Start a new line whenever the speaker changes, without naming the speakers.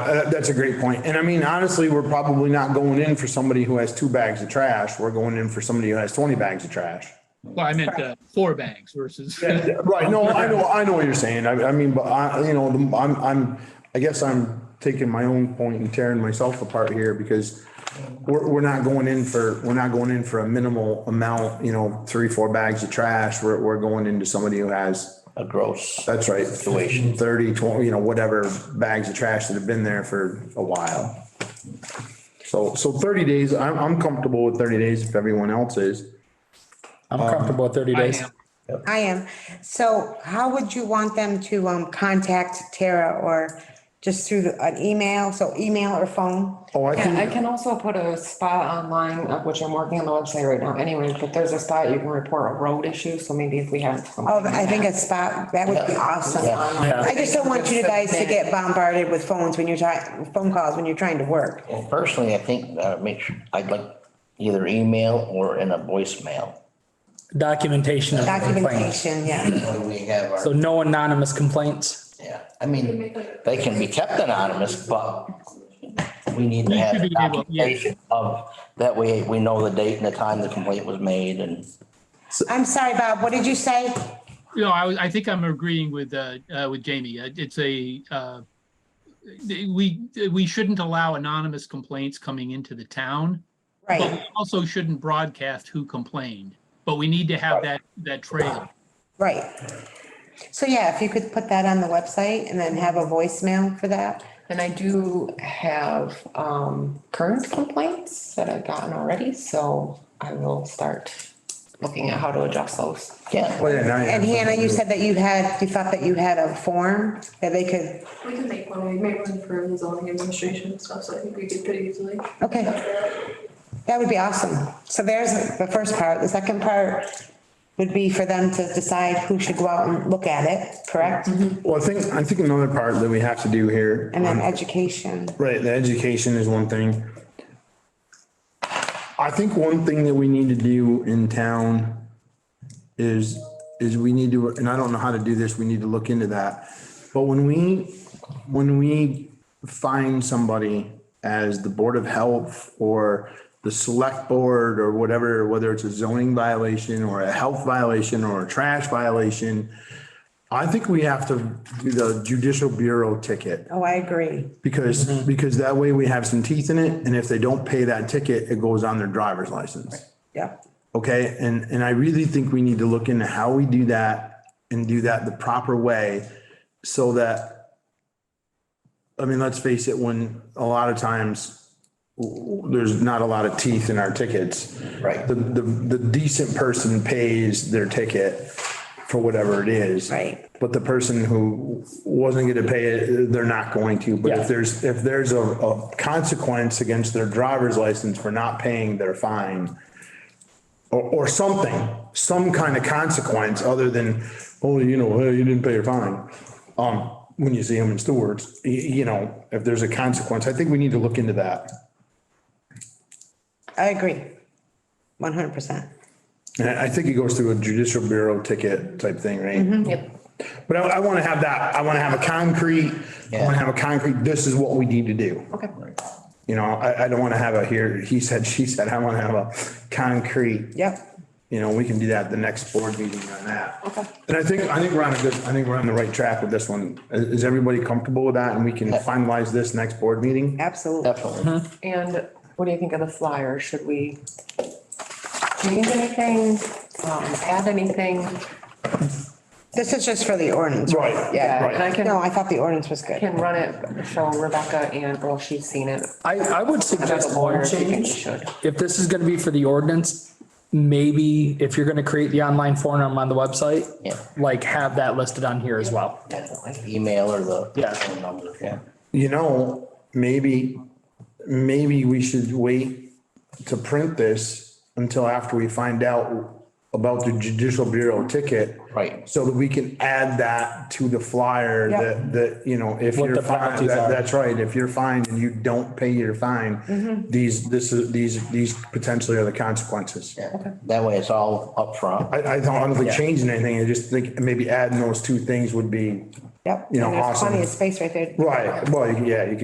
Uh, That's a great point. And I mean, honestly, we're probably not going in for somebody who has two bags of trash. We're going in for somebody who has 20 bags of trash.
Well, I meant uh, four bags versus.
Right, no, I know, I know what you're saying. I, I mean, but I, you know, the- I'm, I'm, I guess I'm taking my own point and tearing myself apart here because we're, we're not going in for, we're not going in for a minimal amount, you know, three, four bags of trash. We're, we're going into somebody who has,
a gross.
that's right. Situation. Thirty, twenty, you know, whatever bags of trash that have been there for a while. So, so thirty days, I'm, I'm comfortable with thirty days if everyone else is.
I'm comfortable with thirty
I
days.
am.
I am. So how would you want them to um, contact Tara or just through the- an email? So email or phone?
Oh, I
Yeah, I
think,
can also put a spot online, of which I'm working on the website right now anyway, but there's a spot you can report a road issue, so maybe if we have. something
Oh, I think a spot, that would be awesome.
online.
I just don't want you guys to get bombarded with phones when you're trying, phone calls when you're trying to work.
Well, personally, I think, uh, make sure, I'd like either email or in a voicemail.
Documentation of complaints.
Documentation, yeah.
When we have
So
our,
no anonymous complaints.
yeah, I mean, they can be kept anonymous, but we need to have
should
the
be able- yeah.
documentation of, that way we know the date and the time the complaint was made and.
I'm sorry, Bob, what did you say?
No, I, was- I think I'm agreeing with, uh, uh, with Jamie. Uh, It's a, uh, we, we shouldn't allow anonymous complaints coming into the town. But
Right,
we also shouldn't broadcast who complained, but we need to have that, that trail.
right. So yeah, if you could put that on the website and then have a voicemail for that.
And I do have, um, current complaints that I've gotten already, so I will start looking at how to adjust those.
Yeah,
well, Oh, yeah, now you have
And Hannah,
something
you
to-
said that you had, you thought that you had a form that they could,
We can make one, we made one for the zoning administration and stuff, so I think we could pretty easily.
okay, that would be awesome. So there's the first part. The second part would be for them to decide who should go out and look at it, correct? And
Well, I think, I think another part that we have to do here,
then education.
right, the education is one thing. I think one thing that we need to do in town is, is we need to, and I don't know how to do this, we need to look into that. But when we, when we find somebody as the Board of Health or the Select Board or whatever, whether it's a zoning violation or a health violation or a trash violation, I think we have to do the judicial bureau ticket
Oh, I agree.
because, because that way we have some teeth in it. And if they don't pay that ticket, it goes on their driver's license.
Yep.
Okay, and, and I really think we need to look into how we do that and do that the proper way so that, I mean, let's face it, when a lot of times w- w- there's not a lot of teeth in our tickets.
Right.
The, the, the decent person pays their ticket for whatever it is.
Right.
But the person who wasn't gonna pay it, they're not going to. But
Yeah.
if there's, if there's a, a consequence against their driver's license for not paying their fine, or, or something, some kind of consequence other than, oh, you know, hey, you didn't pay your fine. Um, when you see them in Stewart's, y- you know, if there's a consequence, I think we need to look into that.
I agree. One hundred percent.
And I I think it goes through a judicial bureau ticket type thing, right?
Yep.
But I, I want to have that, I want to have a concrete, I want to have a concrete, this is what we need to do.
Okay.
You know, I, I don't want to have a here, he said, she said, I want to have a concrete
Yep.
you know, we can do that at the next board meeting on that. Okay. And I think, I think we're on a good, I think we're on the right track with this one. Is, is everybody comfortable with that and we can finalize this next board meeting?
Absolutely.
definitely.
And what do you think of the flyer? Should we change anything, um, add anything?
This is just for the ordinance.
Right.
Yeah, and I
Right.
can.
No, I thought the ordinance was good.
can run it, show Rebecca and, well, she's seen it.
I, I would
As
suggest
a lawyer,
one
she thinks
change.
she should.
If this is gonna be for the ordinance, maybe if you're gonna create the online forum on the website,
Yeah.
like have that listed on here as well.
Definitely. Email or the.
Yeah.
phone number, yeah.
You know, maybe, maybe we should wait to print this until after we find out about the judicial bureau ticket.
Right.
So that we can add that to the flyer
Yeah.
that, that, you know, if
What
you're
the
fined,
penalties
that-
are.
that's right, if you're fined and you don't pay your fine, these, this is, these, these potentially are the consequences.
Yeah. That way it's all upfront.
I, I don't, I don't think changing anything, I just think maybe adding those two things would be,
Yep.
You know,
And there's
awesome.
Plenty of space right there.
right, well, yeah, you